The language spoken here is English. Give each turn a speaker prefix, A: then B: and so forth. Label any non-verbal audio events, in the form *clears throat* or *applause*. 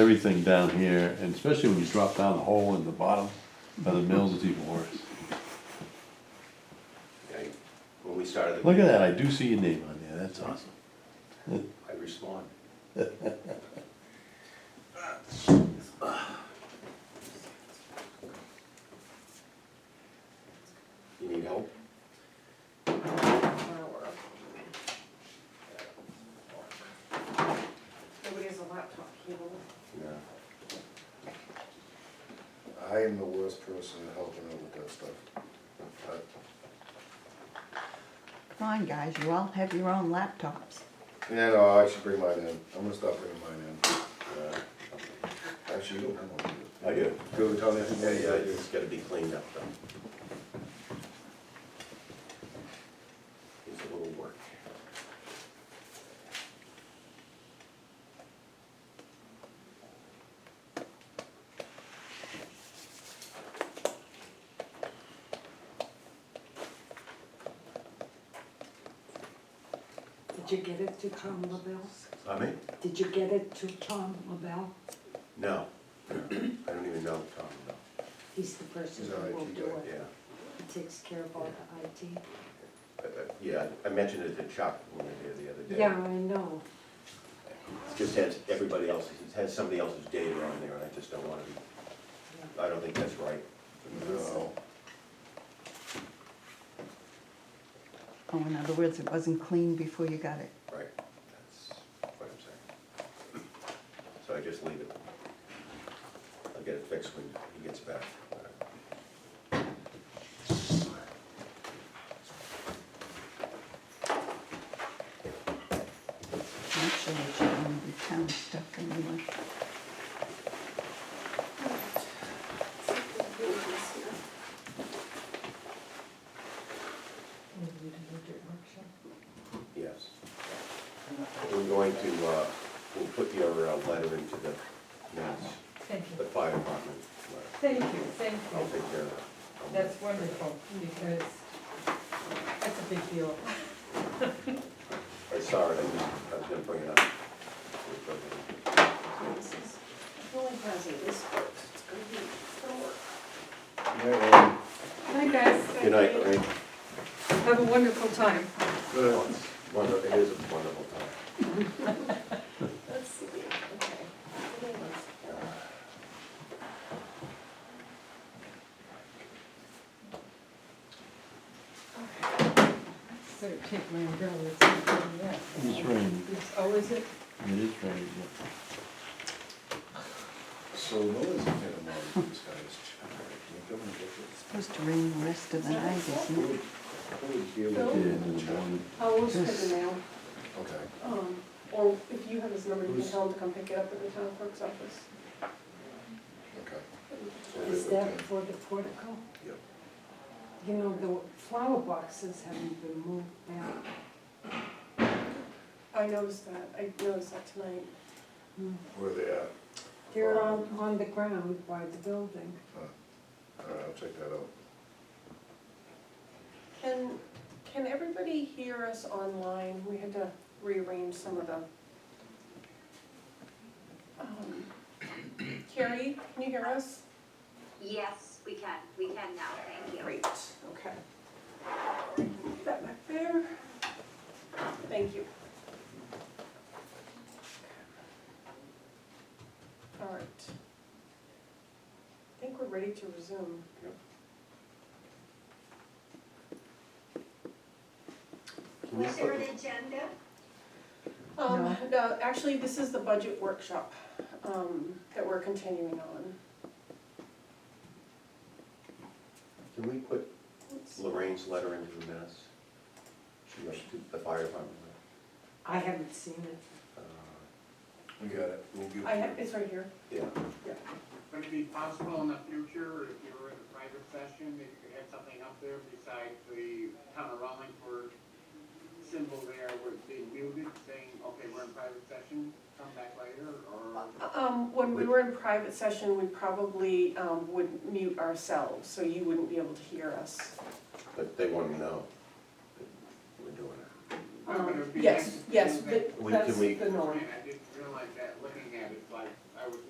A: everything down here, and especially when you drop down the hole in the bottom of the mills, it's even worse.
B: I- When we started, the
A: Look at that, I do see your name on there, that's awesome.
B: I respond. You need help?
C: Nobody has a laptop cable.
D: Yeah. I am the worst person to help out with that stuff. Uh, But,
E: Come on, guys, you all have your own laptops.
D: Yeah, no, I should bring mine in, I'm gonna stop bringing mine in. Uh, Actually, you don't have one.
B: I do.
D: Go tell me.
B: Yeah, yeah, it's gotta be cleaned up though. It's a little work.
C: Did you get it to Tom LaBelle?
B: I mean,
C: Did you get it to Tom LaBelle?
B: no, *clears throat* I don't even know Tom, no,
C: He's the person
D: He's our
C: who will
D: IT
C: do
D: guy,
C: it.
B: yeah.
C: He takes care of all the IT.
B: I- I- Yeah, I mentioned it to Chuck when we were here the other day.
C: Yeah, I know.
B: It just has everybody else's, it has somebody else's data on there, and I just don't wanna be, I don't think that's right.
D: No,
E: Oh, in other words, it wasn't clean before you got it.
B: Right, that's what I'm saying. So I just leave it. I'll get it fixed when he gets back.
E: Actually, it should only be town stuff anyway.
B: Yes. We're going to, uh, we'll put your uh, letter into the minutes,
F: Thank
B: the
F: you.
B: fire department letter.
F: Thank you, thank
B: I'll
F: you.
B: take care of that.
F: That's wonderful, because that's a big deal.
B: I saw it, I was- I was gonna bring it up.
D: yeah, um,
F: Hi, guys.
B: Good night, Lorraine.
F: Have a wonderful time.
D: good.
B: Well, it's wonder- It is a wonderful time.
C: Let's see, okay.
F: Better take my umbrella, it's not getting wet.
A: It's raining,
F: It's- Oh, is it?
A: it is raining, yeah.
D: So Noah's in a mode, this guy is. Can you come and get
E: Supposed to rain the rest of the night, isn't it?
D: this? Who would- who would deal
A: Did
D: with
A: it
D: it?
A: in the morning.
C: How old's the mail?
D: Okay.
C: Um, or if you have his number, you can
D: Who's-
C: tell him to come pick it up at the town clerk's office.
D: Okay.
C: Is that for the portico?
D: Yep.
C: You know, the flower boxes haven't been moved now. I noticed that, I noticed that tonight.
D: Where they at?
C: They're on, on the ground by the building.
D: All right, Uh, I'll check that out.
C: Can, can everybody hear us online? We had to rearrange some of the. Um, Carrie, can you hear us?
G: Yes, we can, we can now, thank you.
C: Great, okay. Put That back there. Thank you. All right. I think we're ready to resume.
B: Can you
G: Was there an
B: put-
G: agenda?
C: Um, no, actually, this is the budget workshop, um, that we're continuing on.
B: Can we put
C: Let's-
B: Lorraine's letter into the minutes? She wrote to the fire department.
F: I haven't seen it.
B: uh,
D: We got it. We'll give it
C: I
D: to you.
C: have, it's right here.
B: Yeah,
H: Would it be possible in the future, if you were in a private session, that you could have something up there besides the town of Wallingford symbol there where it's being muted, saying, okay, we're in private session, come back later, or?
C: Um, when we were in private session, we probably, um, would mute ourselves, so you wouldn't be able to hear us.
B: but they want to know that we're doing it.
H: But it
C: Um,
H: Oh, would be nice
C: yes,
H: to
C: yes,
H: know that-
C: that-
B: We- can
C: that's
B: we-
C: the norm.
H: And